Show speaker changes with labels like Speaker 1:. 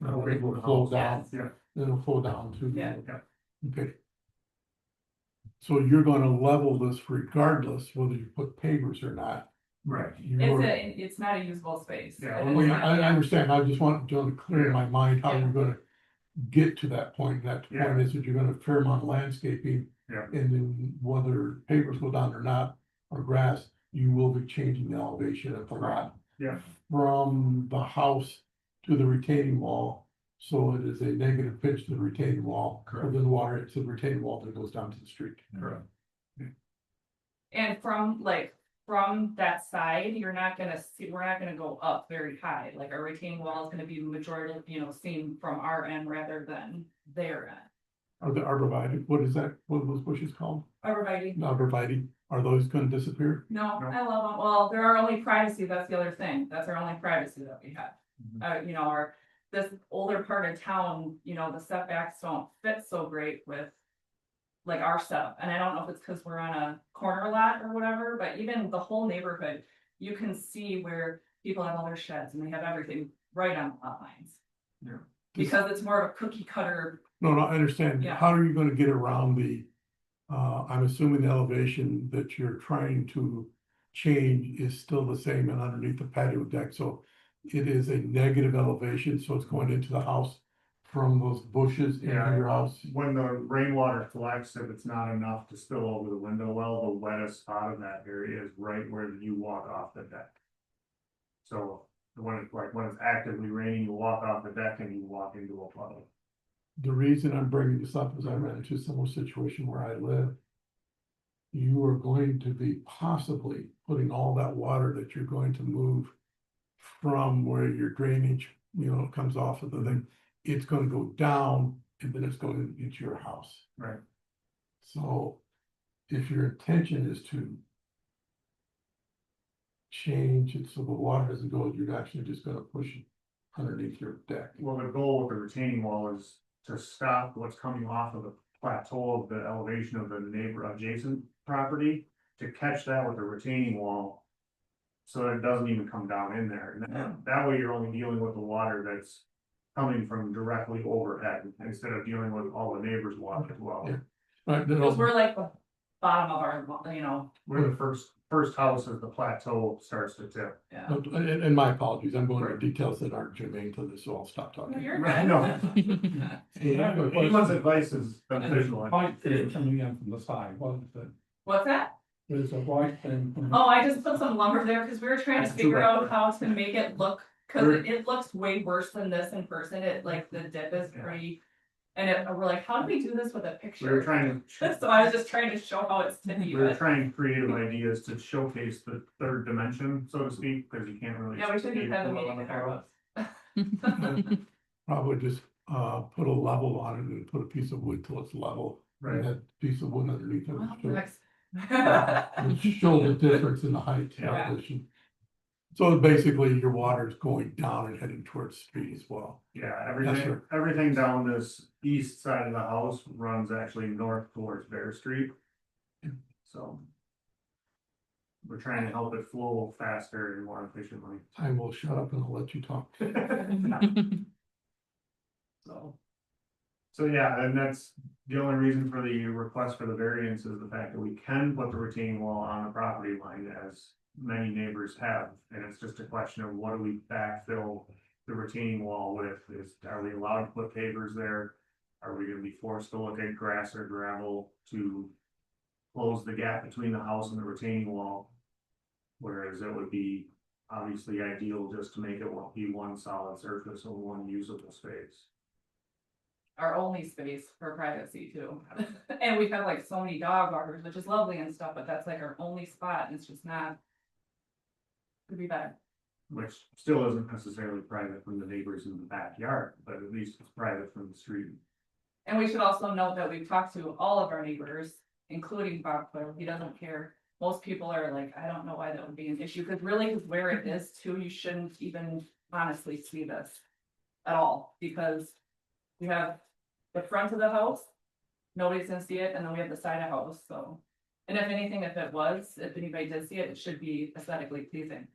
Speaker 1: Now it will flow down,
Speaker 2: Yeah.
Speaker 1: then it'll flow down to.
Speaker 2: Yeah.
Speaker 1: the Okay. So you're gonna level this regardless whether you put pavers or not.
Speaker 2: Right.
Speaker 1: You
Speaker 3: It's
Speaker 1: already-
Speaker 3: a, it's not a usable space.
Speaker 2: Yeah,
Speaker 3: It
Speaker 2: well,
Speaker 3: is
Speaker 1: Well, yeah,
Speaker 3: not,
Speaker 1: I, I
Speaker 3: yeah.
Speaker 1: understand, I just want to clear in my mind how
Speaker 3: Yeah.
Speaker 1: you're gonna get to that point, that
Speaker 2: Yeah.
Speaker 1: point is that you're gonna Fairmont landscaping.
Speaker 2: Yeah.
Speaker 1: And then whether papers go down or not, or grass, you will be changing the elevation of the lot.
Speaker 2: Yeah.
Speaker 1: From the house to the retaining wall, so it is a negative pitch to the retaining wall,
Speaker 2: Correct.
Speaker 1: or the water, it's the retaining wall that goes down to the street.
Speaker 2: Correct.
Speaker 3: And from like, from that side, you're not gonna see, we're not gonna go up very high, like our retaining wall is gonna be majority, you know, seen from our end rather than their end.
Speaker 1: Are the arborvitae, what is that, what are those bushes called?
Speaker 3: Everybody,
Speaker 1: Arborvitae, are those gonna disappear?
Speaker 3: no,
Speaker 2: No.
Speaker 3: I love them, well, they're our only privacy, that's the other thing, that's our only privacy that we have. Uh, you know, our, this older part of town, you know, the setbacks don't fit so great with. Like our stuff, and I don't know if it's because we're on a corner lot or whatever, but even the whole neighborhood, you can see where people have all their sheds and they have everything right on lot lines.
Speaker 2: Yeah.
Speaker 3: Because it's more of a cookie cutter,
Speaker 1: No, no, I understand.
Speaker 3: Yeah.
Speaker 1: How are you gonna get around the, uh, I'm assuming the elevation that you're trying to change is still the same and underneath the patio deck, so it is a negative elevation, so it's going into the house from those bushes into
Speaker 2: Yeah.
Speaker 1: your house.
Speaker 2: When the rainwater collects, if it's not enough to spill over the window well, the wettest spot in that area is right where you walk off the deck. So when it's like, when it's actively raining, you walk off the deck and you walk into a puddle.
Speaker 1: The reason I'm bringing this up is I ran into a similar situation where I live. You are going to be possibly putting all that water that you're going to move from where your drainage, you know, comes off of the thing, it's gonna go down and then it's going into your house.
Speaker 2: Right.
Speaker 1: So if your intention is to change it so the water doesn't go, you're actually just gonna push it underneath your deck.
Speaker 2: Well, the goal with the retaining wall is to stop what's coming off of the plateau of the elevation of the neighbor adjacent property. To catch that with the retaining wall. So that it doesn't even come down in there, and that, that way you're only dealing with the water that's. Coming from directly overhead, instead of dealing with all the neighbors' water as well.
Speaker 1: Yeah. Right, then
Speaker 3: because
Speaker 1: I'll-
Speaker 3: we're like the bottom of our, lo- you know,
Speaker 2: We're the first, first house as the plateau starts to tip.
Speaker 3: yeah.
Speaker 1: No, And, and my apologies, I'm going
Speaker 2: Right.
Speaker 1: into details that aren't germane to this, so I'll stop
Speaker 3: No,
Speaker 1: talking.
Speaker 3: You're
Speaker 2: Right,
Speaker 3: good.
Speaker 2: Anyone's advice is beneficial.
Speaker 4: White thing coming in from the side, wasn't it?
Speaker 3: What's that?
Speaker 4: There's a white thing. coming-
Speaker 3: Oh, I just put some lumber there because we were trying to
Speaker 2: That's too
Speaker 3: figure
Speaker 2: bad.
Speaker 3: out how to make it look, because
Speaker 2: Sure.
Speaker 3: it, it looks way worse than this in person. It like the dip is
Speaker 2: Yeah.
Speaker 3: pretty. And it, we're like, how do we do this with a
Speaker 2: We were
Speaker 3: picture?
Speaker 2: trying to.
Speaker 3: So I was just trying to show how it's to be,
Speaker 2: We were
Speaker 3: but
Speaker 2: trying creative ideas to showcase the third dimension, so to speak, because you can't really.
Speaker 3: yeah, we should
Speaker 2: see
Speaker 3: have had a
Speaker 2: below
Speaker 3: meeting
Speaker 2: the
Speaker 3: with
Speaker 2: floor.
Speaker 3: our
Speaker 1: Probably just, uh, put a level on it and put a piece of wood till it's level. and
Speaker 2: Right,
Speaker 1: That piece of wood underneath it.
Speaker 3: Well,
Speaker 1: should-
Speaker 3: next-
Speaker 1: would Show the difference in the height
Speaker 2: Yeah.
Speaker 1: elevation. So basically, your water is going down and heading towards the street as well.
Speaker 2: yeah, everything,
Speaker 1: right.
Speaker 2: everything down this east side of the house runs actually north towards Bear Street. So. We're trying to help it flow faster and more efficiently.
Speaker 1: I will shut up and I'll let you talk.
Speaker 2: So. So yeah, and that's the only reason for the request for the variance is the fact that we can put the retaining wall on the property line as many neighbors have. And it's just a question of what do we backfill the retaining wall with? Is, are we allowed to put pavers there? Are we gonna be forced to look at grass or gravel to close the gap between the house and the retaining wall? Whereas it would be obviously ideal just to make it one- be one solid surface and one usable space.
Speaker 3: Our only space for privacy too. And we've had like so many dog walkers, which is lovely and stuff, but that's like our only spot and it's just not. Could be better.
Speaker 2: Which still isn't necessarily private from the neighbors in the backyard, but at least it's private from the street.
Speaker 3: And we should also note that we've talked to all of our neighbors, including Bob Quill, he doesn't care. Most people are like, I don't know why that would be an issue, because really where it is too, you shouldn't even honestly see this at all, because you have the front of the house, nobody's gonna see it, and then we have the side of house, so. And if anything, if it was, if anybody did see it, it should be aesthetically pleasing.